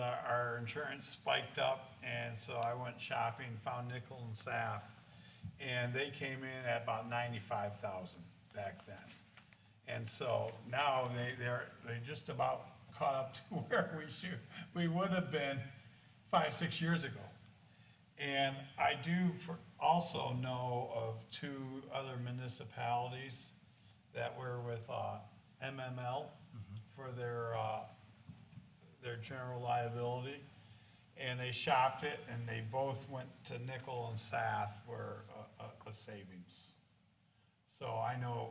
uh, insurance spiked up, and so I went shopping, found Nickel and Saf, and they came in at about ninety-five thousand back then. And so now they, they're, they just about caught up to where we should, we would have been five, six years ago. And I do for- also know of two other municipalities that were with uh, MML for their, uh, their general liability. And they shopped it and they both went to nickel and SAF for a- a, a savings. So I know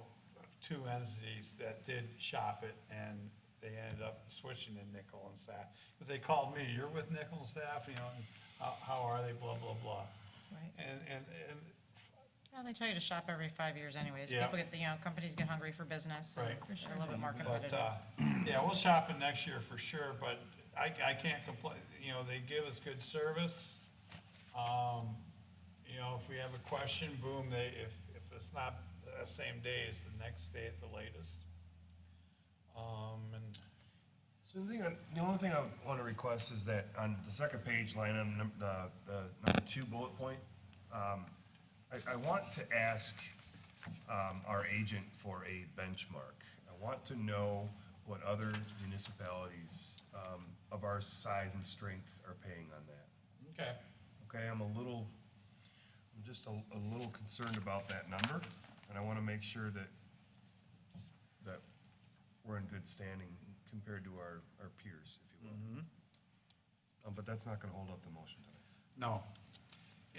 two entities that did shop it and they ended up switching to nickel and staff. Because they called me, you're with nickel and staff, you know, and how, how are they, blah, blah, blah. Right. And, and, and, Well, they tell you to shop every five years anyways. Yeah. People get, you know, companies get hungry for business. Right. They're a little bit more but, competitive. uh, yeah, we'll shop it next year for sure, but I, I can't complain, you know, they give us good service. Um, you know, if we have a question, boom, they, if, if it's not the same day, it's the next day at the latest. Um, and So the thing, I- the only thing I want to request is that on the second page, line item, num- uh, the number two bullet point, um, I, I want to ask, um, our agent for a benchmark. I want to know what other municipalities, um, of our size and strength are paying on that. Okay, Okay, I'm a little, I'm just a, a little concerned about that number, and I wanna make sure that, that we're in good standing compared to our, our peers, if you will. Um, but that's not gonna hold up the motion tonight. no.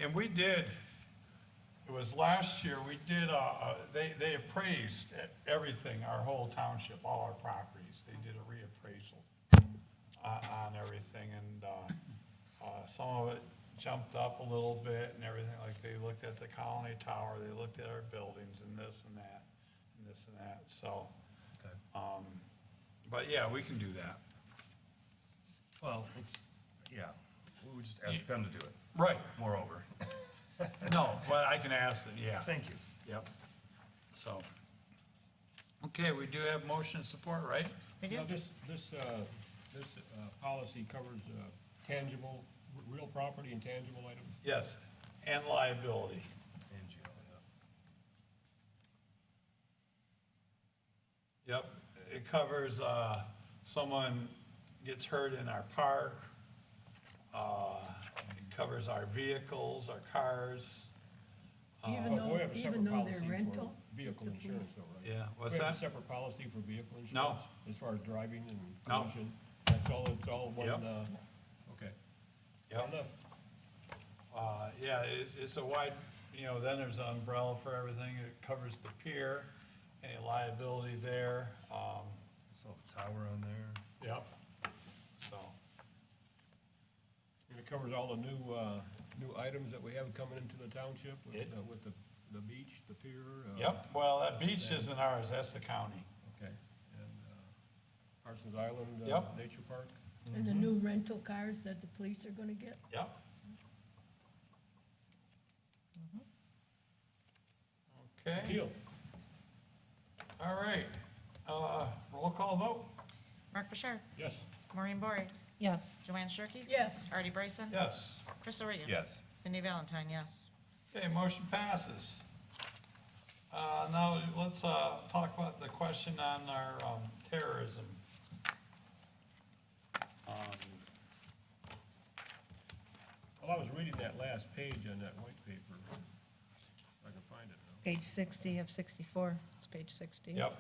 And we did, it was last year, we did, uh, uh, they, they appraised e-, everything, our whole township, all our properties. They did a reappraisal uh, on, on everything and, uh, uh, some of it jumped up a little bit and everything. Like they looked at the Colony Tower, they looked at our buildings and this and that, and this and that, so. Um, but yeah, we can do that. Well, it's, yeah, we would just ask them to do it, Right. moreover. No, but I can ask them, yeah. Thank you. Yep. So. Okay, we do have motion support, right? We do, Now, this, this, uh, this uh, policy covers uh, tangible, r- real property and tangible items. Yes. And liability. And Gio, yeah. Yep. It covers, uh, someone gets hurt in our park. Uh, it covers our vehicles, our cars. Even But Oh, we though, have a even separate though policy they're for rental? vehicle It's a- insurance though, right? Yeah, what's We have that? a separate policy for vehicle insurance? As far as driving and No. collision? That's all, it's all one, Yep. uh, okay. Yep. Enough. Uh, yeah, it's, it's a wide, you know, then there's an umbrella for everything. It covers the pier, any liability there. Um, I saw the tower on there. yep. So. And it covers all the new, uh, new items that we have coming into the township with, It- uh, with the, the beach, the pier. uh, Yep, well, that beach isn't ours, that's the county. Okay, and uh, Parsons Island uh, Yep. Nature Park. And the new rental cars that the police are gonna get? Yep. Okay, Teal, all right, uh, roll call vote, Mark Bouchard, yes. Maureen Bory, Yes. Joanne Shirkey. Yes, Artie Bryson. yes. Crystal Regan. Yes. Cindy Valentine, yes. Okay, motion passes. Uh, now, let's, uh, talk about the question on our, um, terrorism. Well, Oh, I was reading that last page on that white paper, if I can find it now. Page 60 of 64. It's page 60. Yep.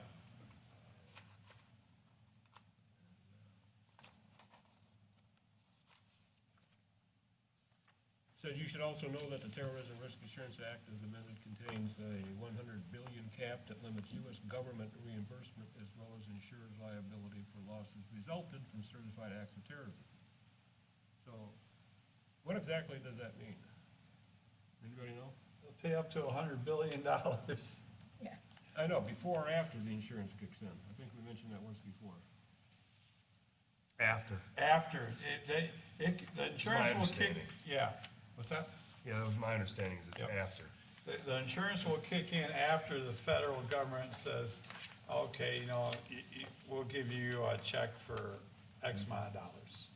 Says you should also know that the Terrorism Risk Assurance Act as amended contains a one hundred billion cap that limits US government reimbursement as well as insurers liability for losses resulted from certified acts of terrorism. So, what exactly does that mean? Anybody know? We'll Pay up to a hundred billion dollars. yeah. I know, before or after the insurance kicks in. I think we mentioned that once before. After. After, it, they, it, the insurance will kick, understanding. yeah. What's that? Yeah, that was my understanding is it's Yep. after. The, the insurance will kick in after the federal government says, okay, you know, you, you, we'll give you a check for X amount of dollars.